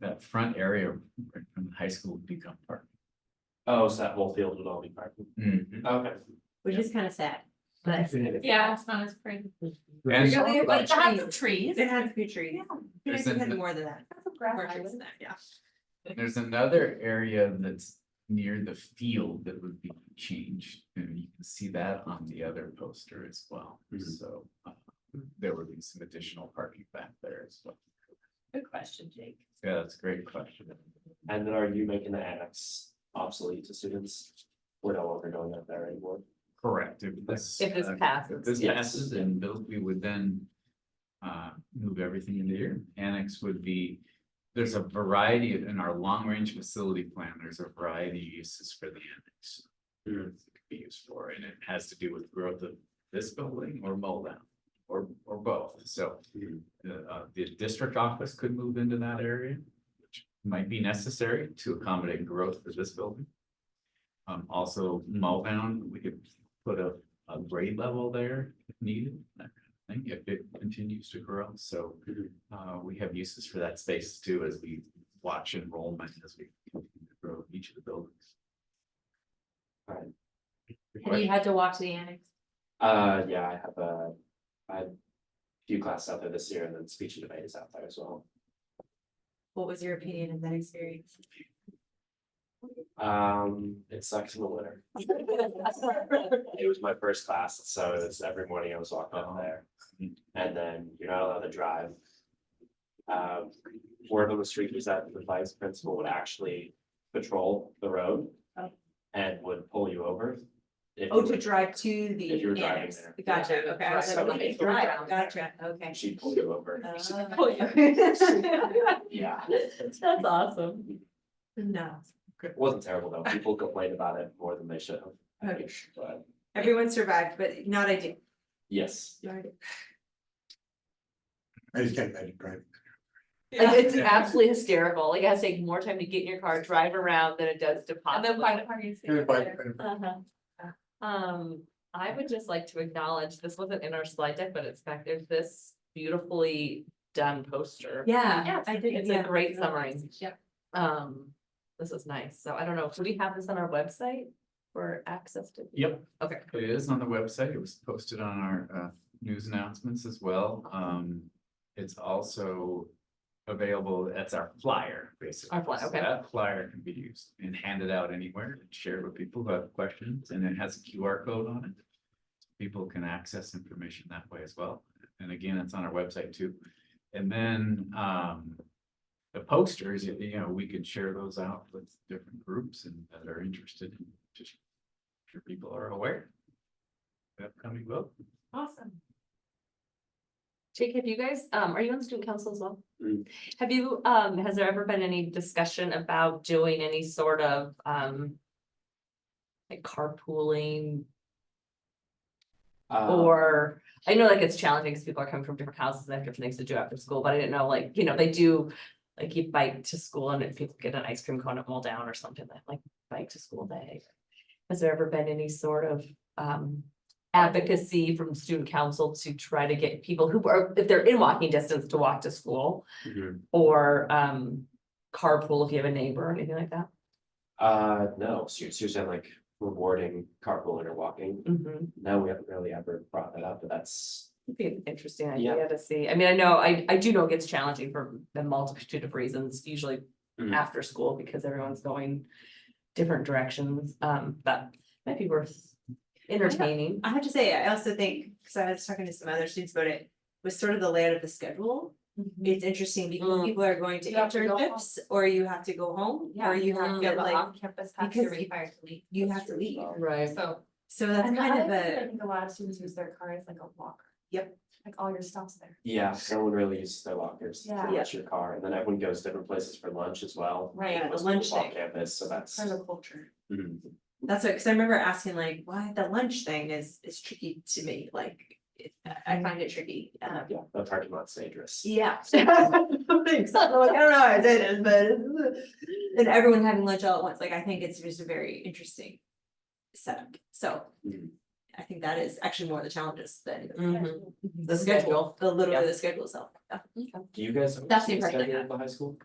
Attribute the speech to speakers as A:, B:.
A: that front area right from the high school would become park.
B: Oh, so that whole field would all be parking. Okay.
C: which is kind of sad, but.
D: Yeah, it's not as pretty.
A: And
C: Yeah, we have, like,
D: But you have the
C: trees.
D: trees.
C: It had features.
A: There's
C: It had
A: an-
C: more than that. Orchards and that, yeah.
A: there's another area that's near the field that would be changed, and you can see that on the other poster as well,
B: Mhm.
A: so. uh, There would be some additional parking back there as well.
D: Good question, Jake.
A: Yeah, that's a great question.
B: And then are you making the annex obsolete to students? We're no longer going up there anymore.
A: Correct. If this.
D: If this
A: uh,
D: passes.
A: If this
B: Yes.
A: passes, then those- we would then. Uh, move everything into here. Annex would be, there's a variety of- in our long range facility plan, there's a variety of uses for the annex.
B: Hmm.
A: It could be used for, and it has to do with growth of this building or Moldown or or both, so.
B: Mhm.
A: Uh, uh, the district office could move into that area, which might be necessary to accommodate growth for this building. Um, also Muldown, we could put a, a grade level there if needed, that kind of thing, if it continues to grow, so.
B: Mhm.
E: Mm-hmm.
A: Uh, we have uses for that space too, as we watch enrollment, as we continue to grow each of the buildings.
D: Have you had to walk to the annex?
B: Uh, yeah, I have a, I have a few classes out there this year and then speech and debate is out there as well.
C: What was your opinion of that experience?
B: Um, it sucks in the winter. It was my first class, so it was every morning I was walking up
A: Oh.
B: there. And then you're not allowed to drive. Um, word on the street was that the vice principal would actually patrol the road.
C: Oh.
B: And would pull you over. if
C: Oh,
B: you
C: to
B: were-
C: drive to
B: If you were
C: the
B: driving
C: annex,
B: there.
C: gotcha, okay, I
B: Right,
C: was like,
B: so
C: okay,
B: if
D: you're
C: drive,
D: driving there.
C: gotcha, okay.
B: She'd pull you over.
C: Oh,
B: Yeah,
C: That's awesome. No,
B: it wasn't terrible though. People complained about it more than they should have. I
C: Okay.
B: think, But
C: everyone survived, but not I did,
B: yes,
C: not I did.
E: I just can't imagine driving.
F: Like, it's absolutely hysterical, like, it has taken more time to get in your car, drive around than it does to pop.
D: And then by the party.
E: It was like, uh,
F: Uh-huh. Um, I would just like to acknowledge, this wasn't in our slide deck, but it's back, there's this beautifully done poster.
C: Yeah,
D: Yeah,
C: I did,
F: It's a
C: yeah,
F: great summary,
D: Yeah.
F: um, this is nice, so I don't know, do we have this on our website for access to?
A: Yep.
F: Okay.
A: It is on the website. It was posted on our uh news announcements as well. Um, it's also. Available, that's our flyer, basically.
F: Our flyer,
A: So
F: okay.
A: That flyer can be used and handed out anywhere and shared with people who have questions and it has a QR code on it. People can access information that way as well. And again, it's on our website too. And then um. The posters, you you know, we could share those out with different groups and that are interested in just sure people are aware. of the Upcoming vote.
D: Awesome.
F: Jake, have you guys, um, are you on student council as well?
B: Mm.
F: Have you, um, has there ever been any discussion about doing any sort of, um. Like carpooling
B: um,
F: or, I know like it's challenging because people are coming from different houses and they have different things to do after school, but I didn't know like, you know, they do. Like you bike to school and if people get an ice cream cone at Moldown or something, like, like bike to school day. Has there ever been any sort of, um, advocacy from student council to try to get people who are, if they're in walking distance to walk to school?
B: Mhm.
F: Or um carpool if you have a neighbor or anything like that.
B: Uh, no, so you're so you're saying like rewarding carpooling or walking.
F: Mhm.
B: No, we haven't really ever brought that up, but that's,
F: It'd be an interesting
B: Yeah.
F: idea to see. I mean, I know, I I do know it gets challenging for a multitude of reasons, usually
B: Mhm.
F: after school because everyone's going different directions, um, but might be worth entertaining.
C: I have to say, I also think, because I was talking to some other students about it, was sort of the layout of the schedule. It's interesting because
F: Mm.
C: people are going to
D: You have to go home. Uh-huh.
C: internships, or you have to go home, or you have to
D: Get
C: like,
D: on campus, have to
C: because
D: require to leave.
C: you
B: That's
C: have to
B: true as
C: leave.
B: well.
F: Right.
D: So.
C: So that's
D: And the
C: kind of
D: other thing that
C: a,
D: I think a lot of students use their car as like a walker.
C: Yep.
D: Like all your stuff's there.
B: yeah, no one really uses their lockers.
D: Yeah.
B: Unless your car, and then everyone goes different places for lunch as well.
D: Right,
C: yeah, the
B: Most people
C: lunch
B: walk
C: thing.
B: Campus, so that's.
D: Part of the culture.
B: Mhm.
C: that's what, because I remember asking like, why the lunch thing is, is tricky to me, like, it- I I find it tricky. Um,
B: Yeah, the parking lot's dangerous.
C: Yeah. So, like, I don't know how it is, but, and everyone having lunch all at once, like, I think it's just a very interesting setup, so.
B: Mhm.
C: I think that is actually more the challenges than
D: Mm-hmm.
F: Mhm.
C: the schedule, the little bit of the schedule itself.
B: Do you guys?
C: That's the impression I
B: schedule
C: have.
B: at The high school?